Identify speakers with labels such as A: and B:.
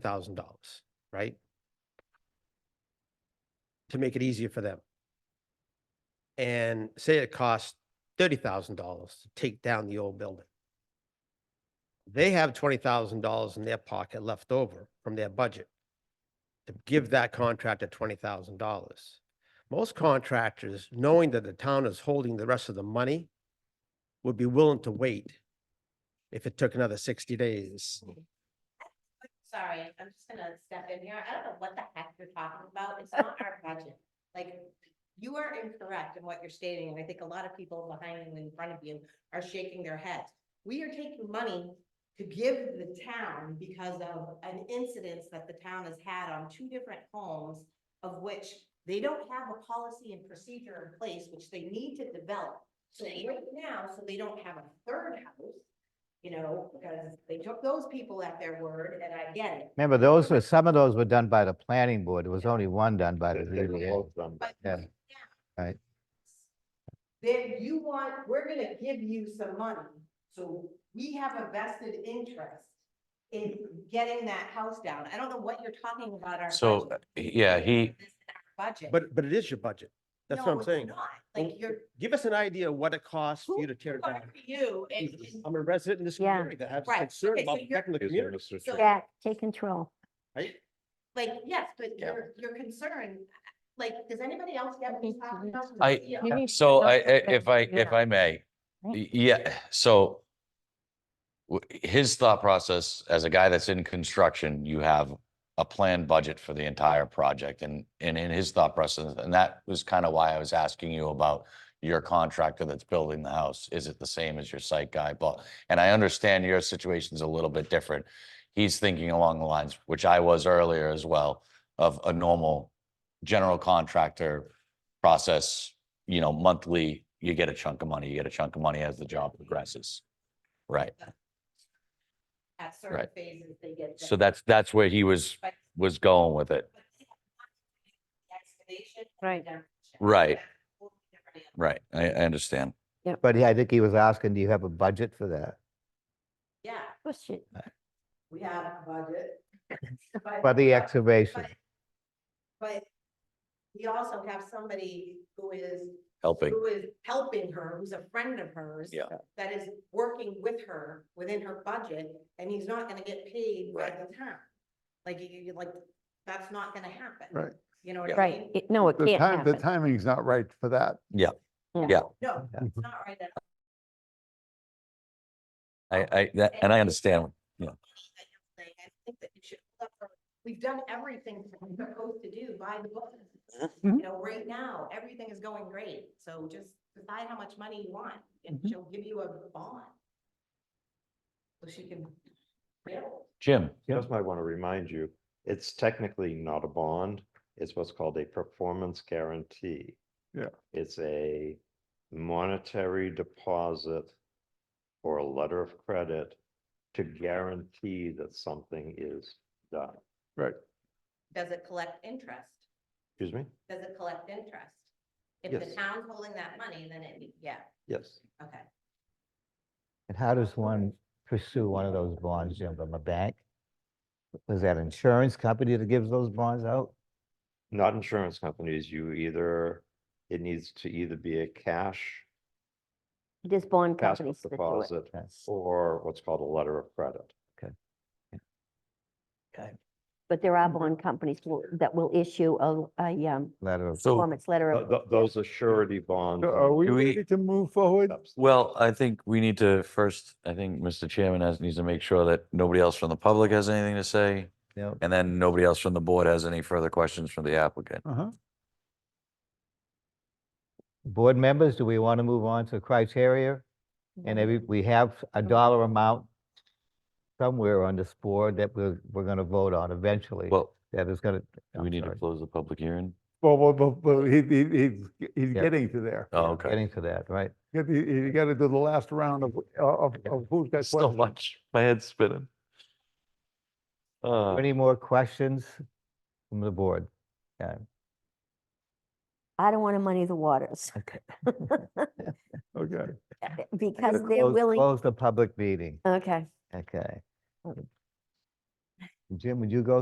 A: thousand dollars, right? To make it easier for them. And say it costs thirty thousand dollars to take down the old building. They have twenty thousand dollars in their pocket left over from their budget to give that contractor twenty thousand dollars. Most contractors, knowing that the town is holding the rest of the money, would be willing to wait if it took another sixty days.
B: Sorry, I'm just gonna step in here. I don't know what the heck you're talking about. It's not our budget. Like, you are incorrect in what you're stating, and I think a lot of people behind you and in front of you are shaking their heads. We are taking money to give the town because of an incident that the town has had on two different homes of which they don't have a policy and procedure in place, which they need to develop. So right now, so they don't have a third house, you know, because they took those people at their word, and I get it.
C: Remember, those were, some of those were done by the planning board. There was only one done by the
D: They- they were
C: ZBA.
D: both done by-
B: But
C: Yeah.
B: now-
C: Right.
B: Then you want, we're gonna give you some money, so we have a vested interest in getting that house down. I don't know what you're talking about our.
E: So,
B: budget.
E: yeah, he,
B: This is our Budget.
A: But, but it is your budget. That's what
B: No,
A: I'm
B: it's
A: saying.
B: not.
A: Well,
B: Like, you're,
A: Give us an idea of what it costs for you to tear it down.
B: for you, and, and-
A: I'm a resident in this
F: Yeah.
A: community that has
B: Right,
A: concern
B: okay, so
A: about
B: you're-
A: protecting the
D: Is there
A: community.
D: Mr.
B: So-
D: Chair?
F: Yeah, take control.
B: like, yes, but
A: Yeah.
B: your, your concern, like, does anybody else get what he's talking
A: Mm-hmm.
B: about?
E: I-
B: Yeah.
F: You need to
E: so
F: know
E: I, I-
F: something.
E: if I, if
F: Yeah.
E: I may, y-
F: Right.
E: yeah, so w- his thought process, as a guy that's in construction, you have a planned budget for the entire project and, and in his thought process, and that was kind of why I was asking you about your contractor that's building the house. Is it the same as your site guy? But, and I understand your situation's a little bit different. He's thinking along the lines, which I was earlier as well, of a normal general contractor process, you know, monthly, you get a chunk of money, you get a chunk of money as the job progresses. Right,
B: At certain
E: Right.
B: phases, they get.
E: so that's, that's where he was,
B: But-
E: was going with it.
B: but they have not done the Excavation. and
F: Right.
B: demolition.
E: Right.
B: That's a whole different animal.
E: Right, I, I understand.
C: But yeah, I think he was asking, do you have a budget for that?
B: Yeah,
F: Push it.
B: we have a budget.
C: For the excavation?
B: But we also have somebody who is,
E: Helping,
B: who is helping her, who's a friend of hers.
E: Yeah.
B: That is working with her within her budget, and he's not gonna get paid by
E: Right.
B: the town. Like, you- you, like, that's not gonna happen.
G: Right.
B: You know what I mean?
F: Right. It- No, it
G: The
F: can't
G: time, the
F: happen.
G: timing's not right for that.
B: No, it's not right at all.
E: I, I, that, and I understand.
B: that you're saying, I think that you should, hold up for- we've done everything that we're supposed to do by the book. You know, right now, everything is going great, so just decide how much money you want, and
F: Mhm.
B: she'll give you a bond. So she can. build.
E: Jim,
D: Just might want to remind you, it's technically not a bond. It's what's called a performance guarantee.
G: Yeah.
D: It's a monetary deposit or a letter of credit to guarantee that something is done.
G: Right.
B: Does it collect interest?
D: Excuse me?
B: Does it collect interest? If the
D: Yes.
B: town's holding that money, then it, yeah,
D: Yes.
B: okay.
C: And how does one pursue one of those bonds, Jim, from a bank? Was that insurance company that gives those bonds out?
D: Not insurance companies. You either, it needs to either be a cash
F: There's bond
D: cash
F: companies that do it.
D: deposit
C: That's-
D: or what's called a letter of credit.
F: But there are bond companies will- that will issue a, a, um,
C: Letter of,
E: so,
F: performance letter.
C: uh,
D: Th-
F: of-
D: th- Those are surety bonds.
G: So Are we
E: Do we-
G: ready to move forward?
E: well, I think we need to first, I think Mr. Chairman has, needs to make sure that nobody else from the public has anything to say.
C: no,
E: And then nobody else from the board has any further questions from the applicant.
G: Uh-huh.
C: board members, do we want to move on to criteria? And every, we have a dollar amount somewhere on this board that we're, we're going to vote on eventually.
E: Well,
C: That is going
E: do
C: to.
E: we need to close the public hearing?
G: Well, well, well, well, he, he, he's- he's
C: Yeah.
G: getting to there.
E: Oh, okay.
C: Getting to that, right?
G: You gotta- You gotta do the last round of, uh, of,
C: Yeah.
G: of who's got
E: So
G: questions.
E: much, my head's spinning. Uh,
C: Any more questions from the board?
F: I don't want to muddy the waters
C: Okay.
G: Okay.
F: because they're
C: Close-
F: willing.
C: Close the public meeting.
F: Okay.
C: Okay. Jim, would you go